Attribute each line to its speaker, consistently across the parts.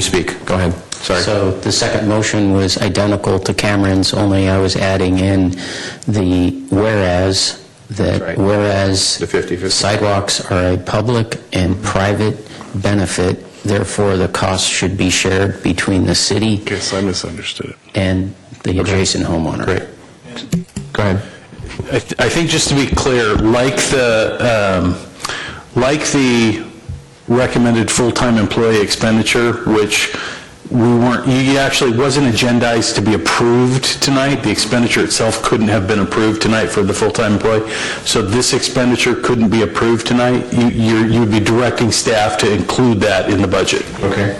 Speaker 1: You speak, go ahead, sorry.
Speaker 2: So the second motion was identical to Cameron's, only I was adding in the whereas,
Speaker 1: That's
Speaker 2: that
Speaker 1: right.
Speaker 2: whereas...
Speaker 1: The 50/50.
Speaker 2: Sidewalks are a public and private benefit, therefore the cost should be shared between the city
Speaker 3: Guess I misunderstood it.
Speaker 2: and the adjacent homeowner.
Speaker 1: Great. Go ahead.
Speaker 4: I th- I think just to be clear, like the, um, like the recommended full-time employee expenditure, which we weren't, you actually wasn't agendized to be approved tonight, the expenditure itself couldn't have been approved tonight for the full-time employee, so this expenditure couldn't be approved tonight, You- you're- you'd be directing staff to include that in the budget.
Speaker 1: Okay.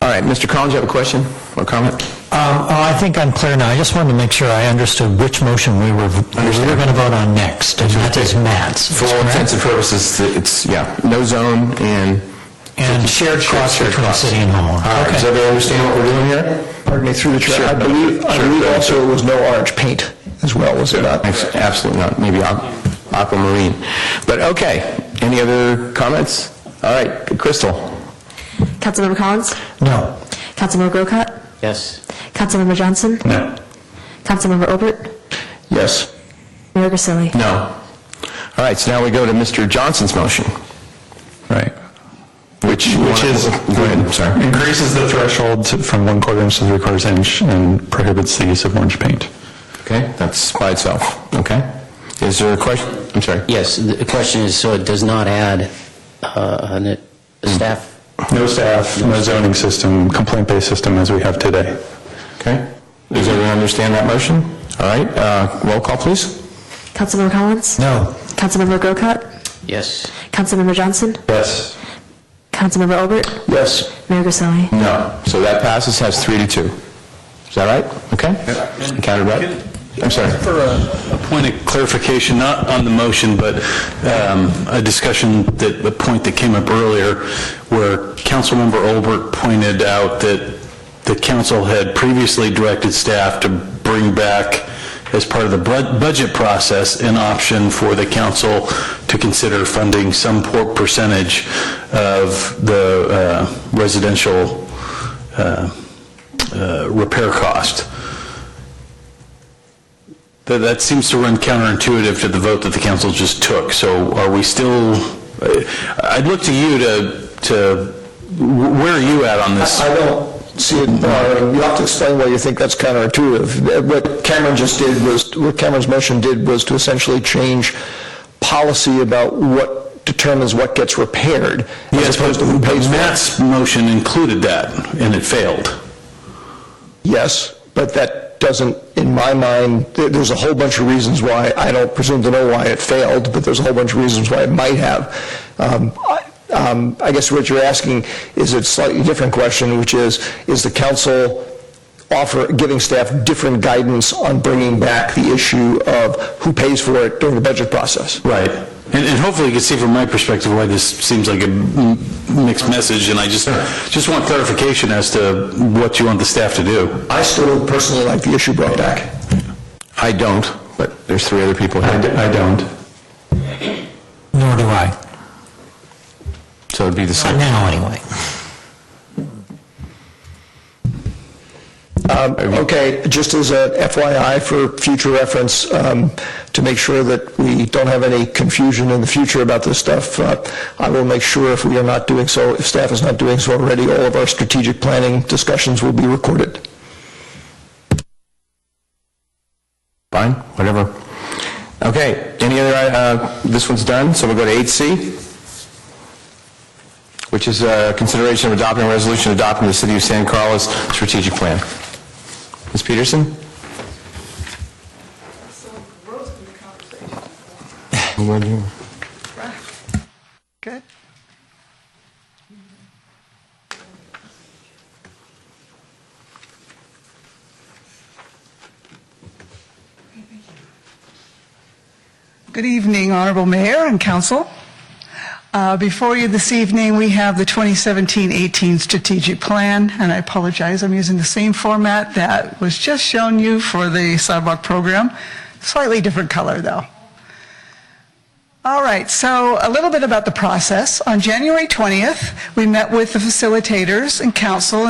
Speaker 1: All right, Mr. Collins, you have a question or comment?
Speaker 5: Um, oh, I think I'm clear now. I just wanted to make sure I understood which motion we were, we were going to vote on next, and that is Matt's.
Speaker 1: For all intents and purposes, it's, yeah, no zone and...
Speaker 5: And shared costs
Speaker 1: Shared
Speaker 5: between
Speaker 1: costs.
Speaker 5: city and homeowner.
Speaker 1: All right,
Speaker 5: Okay.
Speaker 1: does everybody understand what we're doing here?
Speaker 6: Pardon me, through the
Speaker 1: Sure.
Speaker 6: chair, I believe, I
Speaker 1: Sure.
Speaker 6: believe also it was no orange paint as well, was it not?
Speaker 1: Abs- Absolutely not, maybe aqu- aquamarine. But, okay, any other comments? All right, Crystal?
Speaker 7: Councilmember Collins?
Speaker 5: No.
Speaker 7: Councilmember Grocott?
Speaker 2: Yes.
Speaker 7: Councilmember Johnson?
Speaker 1: No.
Speaker 7: Councilmember Obert?
Speaker 1: Yes?
Speaker 7: Mayor Grisilli?
Speaker 1: No. All right, so now we go to Mr. Johnson's motion,
Speaker 3: Right.
Speaker 1: which...
Speaker 3: Which is,
Speaker 1: Go ahead, I'm sorry.
Speaker 3: increases the threshold to- from one quarter inch to three quarters inch and prohibits the use of orange paint.
Speaker 1: Okay, that's by itself, okay? Is there a question? I'm sorry.
Speaker 2: Yes, the question is, so it does not add uh, an- a staff
Speaker 3: No staff, no zoning system, complaint-based system as we have today.
Speaker 1: Okay. Does everyone understand that motion? All right, uh, roll call, please.
Speaker 7: Councilmember Collins?
Speaker 5: No.
Speaker 7: Councilmember Grocott?
Speaker 2: Yes.
Speaker 7: Councilmember Johnson?
Speaker 1: Yes.
Speaker 7: Councilmember Obert?
Speaker 1: Yes.
Speaker 7: Mayor Grisilli?
Speaker 1: No. So that passes, has three to two. Is that right? Okay? You Counted right? I'm sorry.
Speaker 4: For a- a point of clarification, not on the motion, but um, a discussion that, the point that came up earlier, where Councilmember Olbert pointed out that the council had previously directed staff to bring back, as part of the bud- budget process, an option for the council to consider funding some por- percentage of the uh, residential uh, uh, repair cost. That, that seems to run counterintuitive to the vote that the council just took, so are we still, I- I'd look to you to, to, where are you at on this?
Speaker 6: I don't see it, uh, you have to explain why you think that's counterintuitive. Uh, What Cameron just did was, what Cameron's motion did was to essentially change policy about what determines what gets repaired, as
Speaker 4: Yes, but
Speaker 6: opposed to who pays for it.
Speaker 4: Matt's motion included that, and it failed.
Speaker 6: Yes, but that doesn't, in my mind, there- there's a whole bunch of reasons why, I don't presume to know why it failed, but there's a whole bunch of reasons why it might have. Um, I um, I guess what you're asking is a slightly different question, which is, is the council offer, giving staff different guidance on bringing back the issue of who pays for it during the budget process?
Speaker 4: Right. And, and hopefully you can see from my perspective why this seems like a m- mixed message, and I just, just want clarification as to what you want the staff to do.
Speaker 6: I still personally like the issue brought back.
Speaker 1: I don't, but there's three other people here.
Speaker 3: I don't.
Speaker 5: Nor do I.
Speaker 1: So it'd be the same.
Speaker 5: Not now, anyway.
Speaker 6: Um, Okay, just as a FYI for future reference, um, to make sure that we don't have any confusion in the future about this stuff, uh, I will make sure if we are not doing so, if staff is not doing so already, all of our strategic planning discussions will be recorded.
Speaker 1: Fine, whatever. Okay, any other, uh, this one's done, so we'll go to 8C, which is uh, consideration of adopting a resolution adopting the City of San Carlos strategic plan. Ms. Peterson?
Speaker 8: Good. Good evening, Honorable Mayor and Council. Uh, Before you this evening, we have the 2017-18 Strategic Plan, and I apologize, I'm using the same format that was just shown you for the sidewalk program, slightly different color, though. Um, All right, so a little bit about the process. On January 20th, we met with the facilitators and council